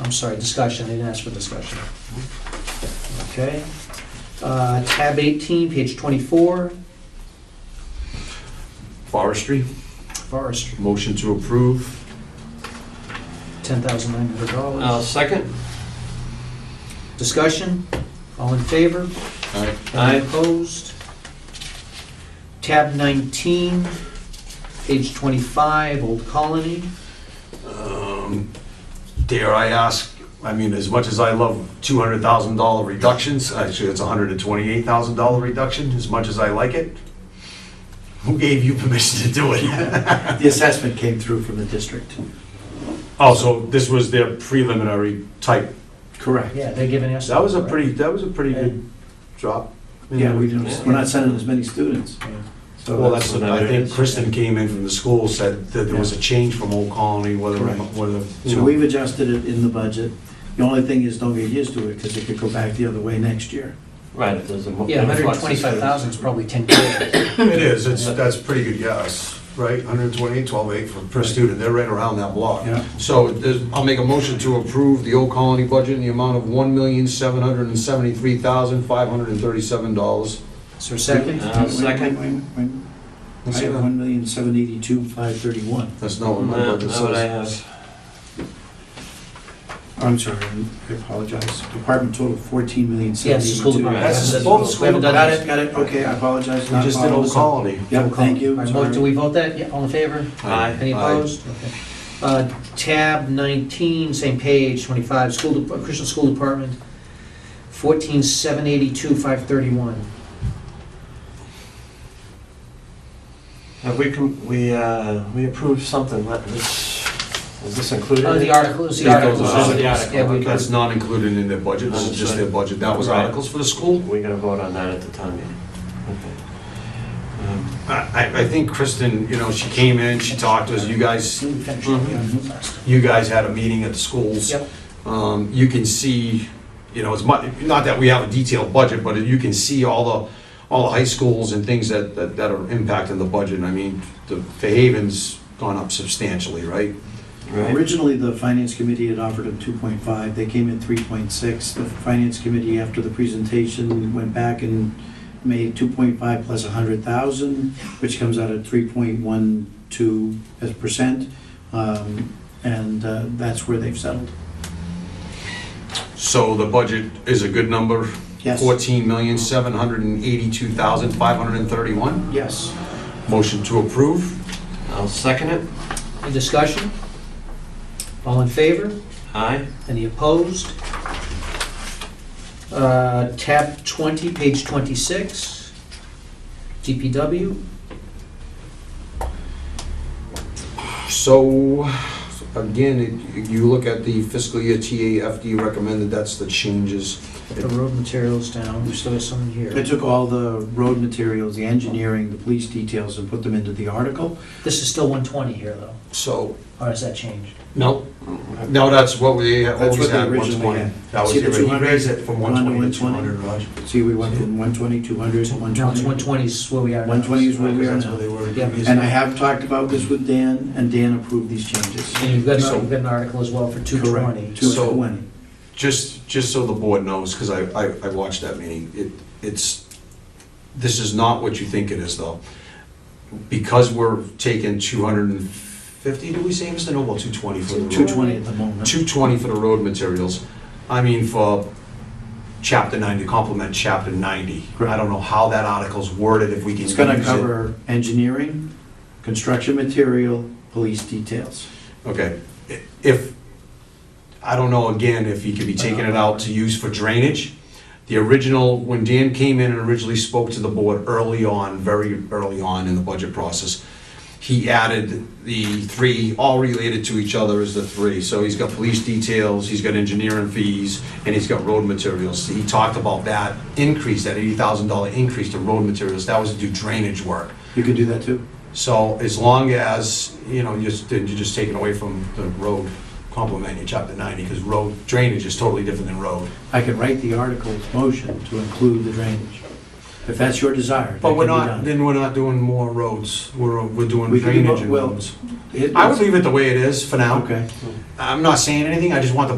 I'm sorry, discussion, they didn't ask for discussion. Okay. Uh, Tab 18, page 24, Forestry, forestry, motion to approve. I'll $10,900. second. Discussion, all in favor? Aye. Aye. Any opposed? Tab 19, page 25, Old Colony. Um, Dare I ask, I mean, as much as I love two hundred thousand dollar reductions, actually, it's a hundred and twenty-eight thousand dollar reduction, as much as I like it. Who gave you permission to do it? The assessment came through from the district. Oh, so this was their preliminary type. Correct. Yeah, they're giving us. That was a pretty, that was a pretty good drop. Yeah, we do. Yeah. We're not sending as many students. So Well, that's, what I it think is. Kristen came in from the school, said that there was a change from Old Colony, whether, Correct. whether, you So know. we've adjusted it in the budget. The only thing is, don't get used to it, because it could go back the other way next year. Right, if there's a. mo- Yeah, influx of 125,000 is probably 10 kids. It is, it's, that's a pretty good guess, right? 128, 128 for, per student, they're right around that block. Yeah. So there's- I'll make a motion to approve the Old Colony budget in the amount of $1,773,537. Is there a second? I'll second. Wait, wait, wait, wait. Let's I see have that. one million, seven eighty-two, five thirty-one. That's not what my No, budget That's what I says. have. I'm sorry, I apologize. Department total, fourteen million, seven Yes, eighty-two. school department. That's Yes, We both haven't school- done Got this. it, got it, okay, I apologize. We not just did following Old this up. Colony. Yep, thank you. All right, mo- sorry. Do we vote that? Yeah, all in favor? Aye. Any Aye. opposed? Okay. Uh, Tab 19, same page, 25, school, dep- Christian School Department, 14782, 531. Have we, com- we, uh, we approved something, let this, is this included? Oh, the article, it's the Yeah, article. those Oh, are the Yeah, we- article, okay. That's not included in their budget, this is just their budget, that was Right. articles for the school? We're gonna vote on that at the town meeting. Okay. Um, I, I- I think Kristen, you know, she came in, she talked to us, you guys, We finished. Mhm. Yeah. you guys had a meeting at the schools. Yep. Um, you can see, you know, as much, not that we have a detailed budget, but you can see all the, all the high schools and things that, that that are impacting the budget. I mean, the Fairhaven's gone up substantially, right? Right, Originally, the finance committee had offered him 2.5, they came in 3.6. The finance committee, after the presentation, went back and made 2.5 plus 100,000, which comes out at 3.12 as percent, Um, and uh, that's where they've settled. So the budget is a good number, Yes? fourteen million, seven hundred and eighty-two thousand, five hundred and thirty-one. Yes. Motion to approve. I'll second it. Any discussion? All in favor? Aye. Any opposed? Uh, Tab 20, page 26, DPW. So, again, it- you look at the fiscal year TAFD recommended, that's the changes. Put the road materials down, we still have some I here. took all the road materials, the engineering, the police details, and put them into the article. This is still 120 here, though, So, or has that changed? No, no, that's what we That's always what they had, originally 120. had. That was See the the original, 200? he raised it from 120 to 120. 200, Raj. See, we went from 120, 200, No, it's 120. 120 is where we are now. 120 is where we are That's now. where they were. Yeah. And I previously. have talked about this with Dan, and Dan approved these changes. And you've got, So- you've got an article as well for 220. Correct, So- 220. Just, just so the board knows, because I, I- I watched that meeting, it, it's, this is not what you think it is, though. Because we're taking 250, did we say, Mr. Noble, 220 for the road? 220 at the moment. 220 for the road materials. I mean, for chapter 90, complement chapter 90. I Correct. don't know how that article's worded, if we can use It's it. gonna cover engineering, construction material, police details. Okay, I- if, I don't know, again, if you could be taking it out to use for drainage. The original, when Dan came in and originally spoke to the board early on, very early on in the budget process, he added the three, all related to each other as the three. So he's got police details, he's got engineering fees, and he's got road materials. He talked about that increase, that eighty thousand dollar increase to road materials, that was to do drainage work. You can do that too. So as long as, you know, you're, just- you're just taking away from the road complement in chapter ninety, because road drainage is totally different than road. I can write the article's motion to include the drainage. If that's your desire, that But can be we're not, done. then we're not doing more roads, we're, we're doing We can do drainage and both, well, roads. It- I would leave it the way it is for now. Okay. I'm not saying anything, I just want the